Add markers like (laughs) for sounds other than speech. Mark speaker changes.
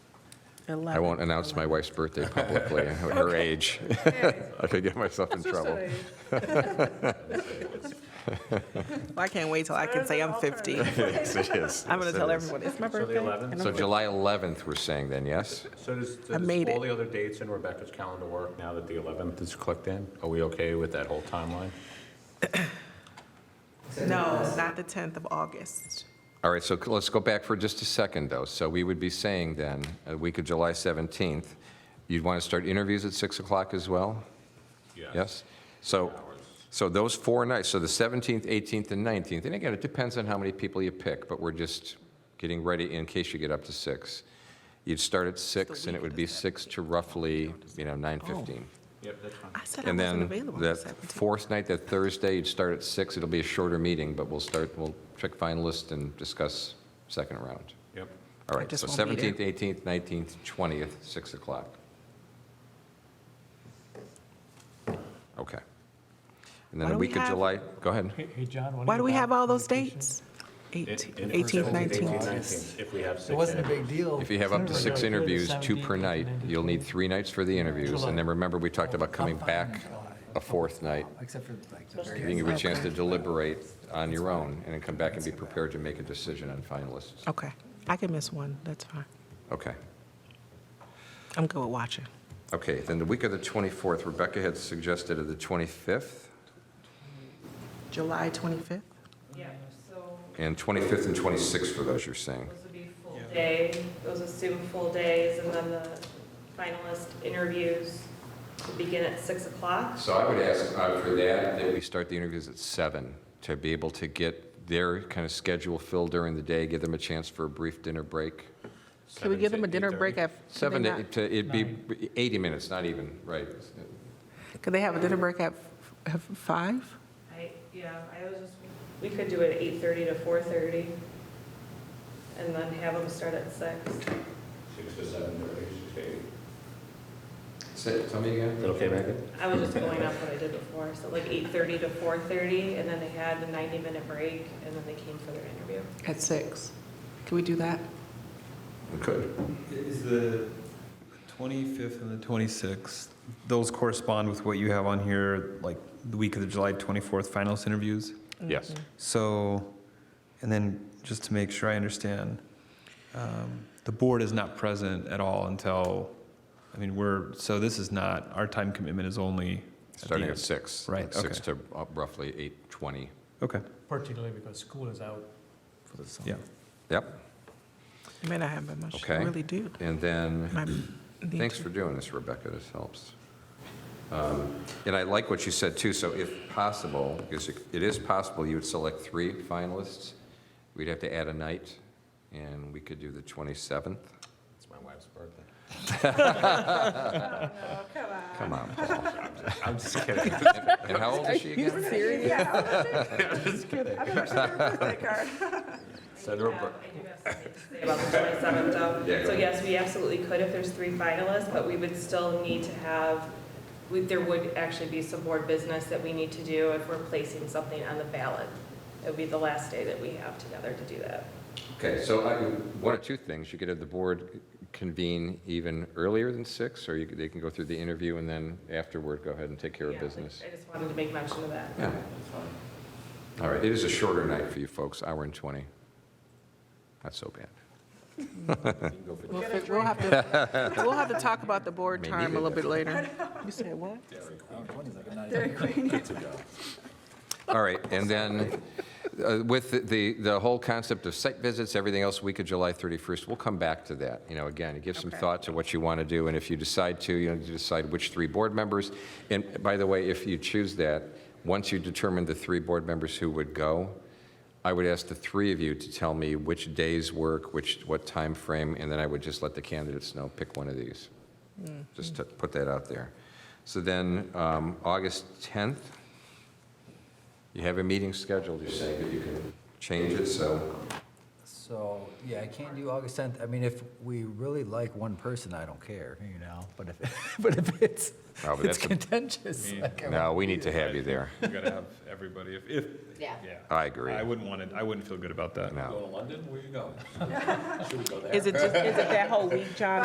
Speaker 1: Eleven.
Speaker 2: I won't announce my wife's birthday publicly, her age. (laughs) I could get myself in trouble.
Speaker 1: Well, I can't wait till I can say I'm 50.
Speaker 2: (laughs) Yes, it is.
Speaker 1: I'm going to
Speaker 2: Yes, it
Speaker 1: tell
Speaker 2: is.
Speaker 1: everyone it's my birthday.
Speaker 3: 11th?
Speaker 1: and
Speaker 2: So
Speaker 1: I'm fif-
Speaker 2: July 11th, we're saying then, yes?
Speaker 3: So does,
Speaker 1: I
Speaker 3: does
Speaker 1: made
Speaker 3: all
Speaker 1: it.
Speaker 3: the other dates in Rebecca's calendar work now that the 11th is clicked in? Are we okay with that whole timeline?
Speaker 1: No, not the 10th of August.
Speaker 2: All right, so c- let's go back for just a second, though. So we would be saying then, a week of July 17th, you'd want to start interviews at 6 o'clock as well? Yes? So, so those four nights, so the 17th, 18th, and 19th, and again, it depends on how many people you pick, but we're just getting ready in case you get up to 6. You'd start at 6, and it would be 6 to roughly, you know, 9:15.
Speaker 3: Yep, that's fine.
Speaker 1: I said I wasn't
Speaker 2: And then
Speaker 1: available on the
Speaker 2: that
Speaker 1: 17th.
Speaker 2: fourth night, that Thursday, you'd start at 6. It'll be a shorter meeting, but we'll start, we'll pick finalists and discuss second round.
Speaker 3: Yep.
Speaker 2: All
Speaker 1: I
Speaker 2: right,
Speaker 1: just
Speaker 2: so
Speaker 1: won't be there.
Speaker 2: 17th, 18th, 19th, 20th, 6 o'clock. Okay. And
Speaker 1: Why
Speaker 2: then a
Speaker 1: don't we
Speaker 2: week of
Speaker 1: have-
Speaker 2: July, go ahead.
Speaker 4: Hey, hey, John, when
Speaker 1: Why do we
Speaker 4: back
Speaker 1: have
Speaker 4: from
Speaker 1: all those
Speaker 4: vacation?
Speaker 1: dates?
Speaker 3: In-
Speaker 1: 18th,
Speaker 3: in-
Speaker 1: 18th,
Speaker 3: 18th,
Speaker 1: 19th.
Speaker 3: 19th, if we have six.
Speaker 4: It wasn't a
Speaker 3: in
Speaker 4: big
Speaker 3: it.
Speaker 4: deal.
Speaker 5: Oh,
Speaker 2: If you have up to
Speaker 4: It's
Speaker 2: six
Speaker 4: never really
Speaker 2: interviews, two
Speaker 4: 17,
Speaker 2: per night,
Speaker 4: 18,
Speaker 2: you'll need
Speaker 4: 20.
Speaker 2: three nights for the interviews. And then remember, we talked about coming
Speaker 4: Fine,
Speaker 2: back
Speaker 4: July.
Speaker 2: a fourth night,
Speaker 4: Except for like the very.
Speaker 2: giving you a chance to deliberate on your own, and then come back and be prepared to make a decision on finalists.
Speaker 1: Okay, I can miss one, that's fine.
Speaker 2: Okay.
Speaker 1: I'm good with watching.
Speaker 2: Okay, then the week of the 24th, Rebecca had suggested of the 25th,
Speaker 1: July 25th?
Speaker 6: Yeah, so
Speaker 2: and 25th and 26th for those you're saying.
Speaker 6: those would be full day, those assume full days, and then the finalist interviews would begin at 6 o'clock.
Speaker 2: So I would ask uh, for that, that we start the interviews at seven, to be able to get their kind of schedule filled during the day, give them a chance for a brief dinner break.
Speaker 1: Can we give them a dinner break at? could they
Speaker 2: Seven, to-
Speaker 1: not-
Speaker 2: to- it'd be 80 minutes, not even, right?
Speaker 1: Could they have a dinner break at f- f- five?
Speaker 6: I, yeah, I was just, we could do it 8:30 to 4:30, and then have them start at 6.
Speaker 3: Six to seven, thirty, six to eight.
Speaker 2: Say- Tell me
Speaker 3: Is
Speaker 2: again?
Speaker 3: that okay, Megan?
Speaker 6: I was just going off what I did before, so like 8:30 to 4:30, and then they had the 90-minute break, and then they came for their interview.
Speaker 1: At six? Can we do that?
Speaker 2: We could.
Speaker 7: Is the 25th and the 26th, those correspond with what you have on here, like the week of the July 24th finalist interviews?
Speaker 1: Mm-hmm.
Speaker 2: Yes.
Speaker 7: So, and then just to make sure I understand, um, the board is not present at all until, I mean, we're, so this is not, our time commitment is only. at the
Speaker 2: Starting at
Speaker 7: end.
Speaker 2: six.
Speaker 7: Right,
Speaker 2: Six to uh, roughly 8:20.
Speaker 7: Okay,
Speaker 4: Particularly because school is out for the summer.
Speaker 7: yeah.
Speaker 2: Yep,
Speaker 1: It may not have been much, I
Speaker 2: Okay.
Speaker 1: really do.
Speaker 2: and then.
Speaker 1: My- need
Speaker 2: Thanks
Speaker 1: to-
Speaker 2: for doing this, Rebecca, this helps. Um, And I like what you said, too, so if possible, because it it is possible, you would select three finalists, we'd have to add a night, and we could do the 27th.
Speaker 3: It's my wife's
Speaker 1: (laughs)
Speaker 3: birthday. (laughs)
Speaker 2: Oh, Come on, Paul.
Speaker 3: I'm just kidding.
Speaker 2: And how old is she again?
Speaker 3: Send her a birthday.
Speaker 6: I do have something to say about the 27th,
Speaker 2: Yeah,
Speaker 6: though.
Speaker 2: go
Speaker 6: So yes, we absolutely could if there's three finalists, but we would still need to have, we- there would actually be some board business that we need to do if we're placing something on the ballot. It would be the last day that we have together to do that.
Speaker 2: Okay, so I- one or two things, you could have the board convene even earlier than six, or you could- they can go through the interview and then afterward, go ahead and take care of
Speaker 6: Yeah,
Speaker 2: business.
Speaker 6: I just wanted to make mention of that.
Speaker 2: Yeah. All right, it is a shorter night for you folks, hour and 20. Not so bad.
Speaker 1: We'll fi- We'll have to, (laughs) we'll have to talk about the board
Speaker 2: May
Speaker 1: time a
Speaker 2: neither.
Speaker 1: little bit later. You said what?
Speaker 2: All right, and then uh, with the, the whole concept of site visits, everything else, week of July 31st, we'll come back to that. You know, again, give some thought to what you want to do, and if you decide to, you know, you decide which three board members. And by the way, if you choose that, once you determine the three board members who would go, I would ask the three of you to tell me which days work, which, what time frame, and then I would just let the candidates know, pick one of these. Just to put that out there. So then, um, August 10th, you have a meeting scheduled, you're saying that you can change it, so,
Speaker 5: So, yeah, I can't do August 10th. I mean, if we really like one person, I don't care, you know, but if, (laughs) but if it's,
Speaker 2: No, but that's
Speaker 5: it's
Speaker 2: a-
Speaker 5: contentious. like, I
Speaker 2: no, we need to have you there.
Speaker 8: You gotta have everybody, if, if, yeah.
Speaker 2: I agree.
Speaker 8: I wouldn't want it, I wouldn't feel good about that.
Speaker 2: No.
Speaker 3: to London, where you going?
Speaker 1: Is it just, is it that whole week, John?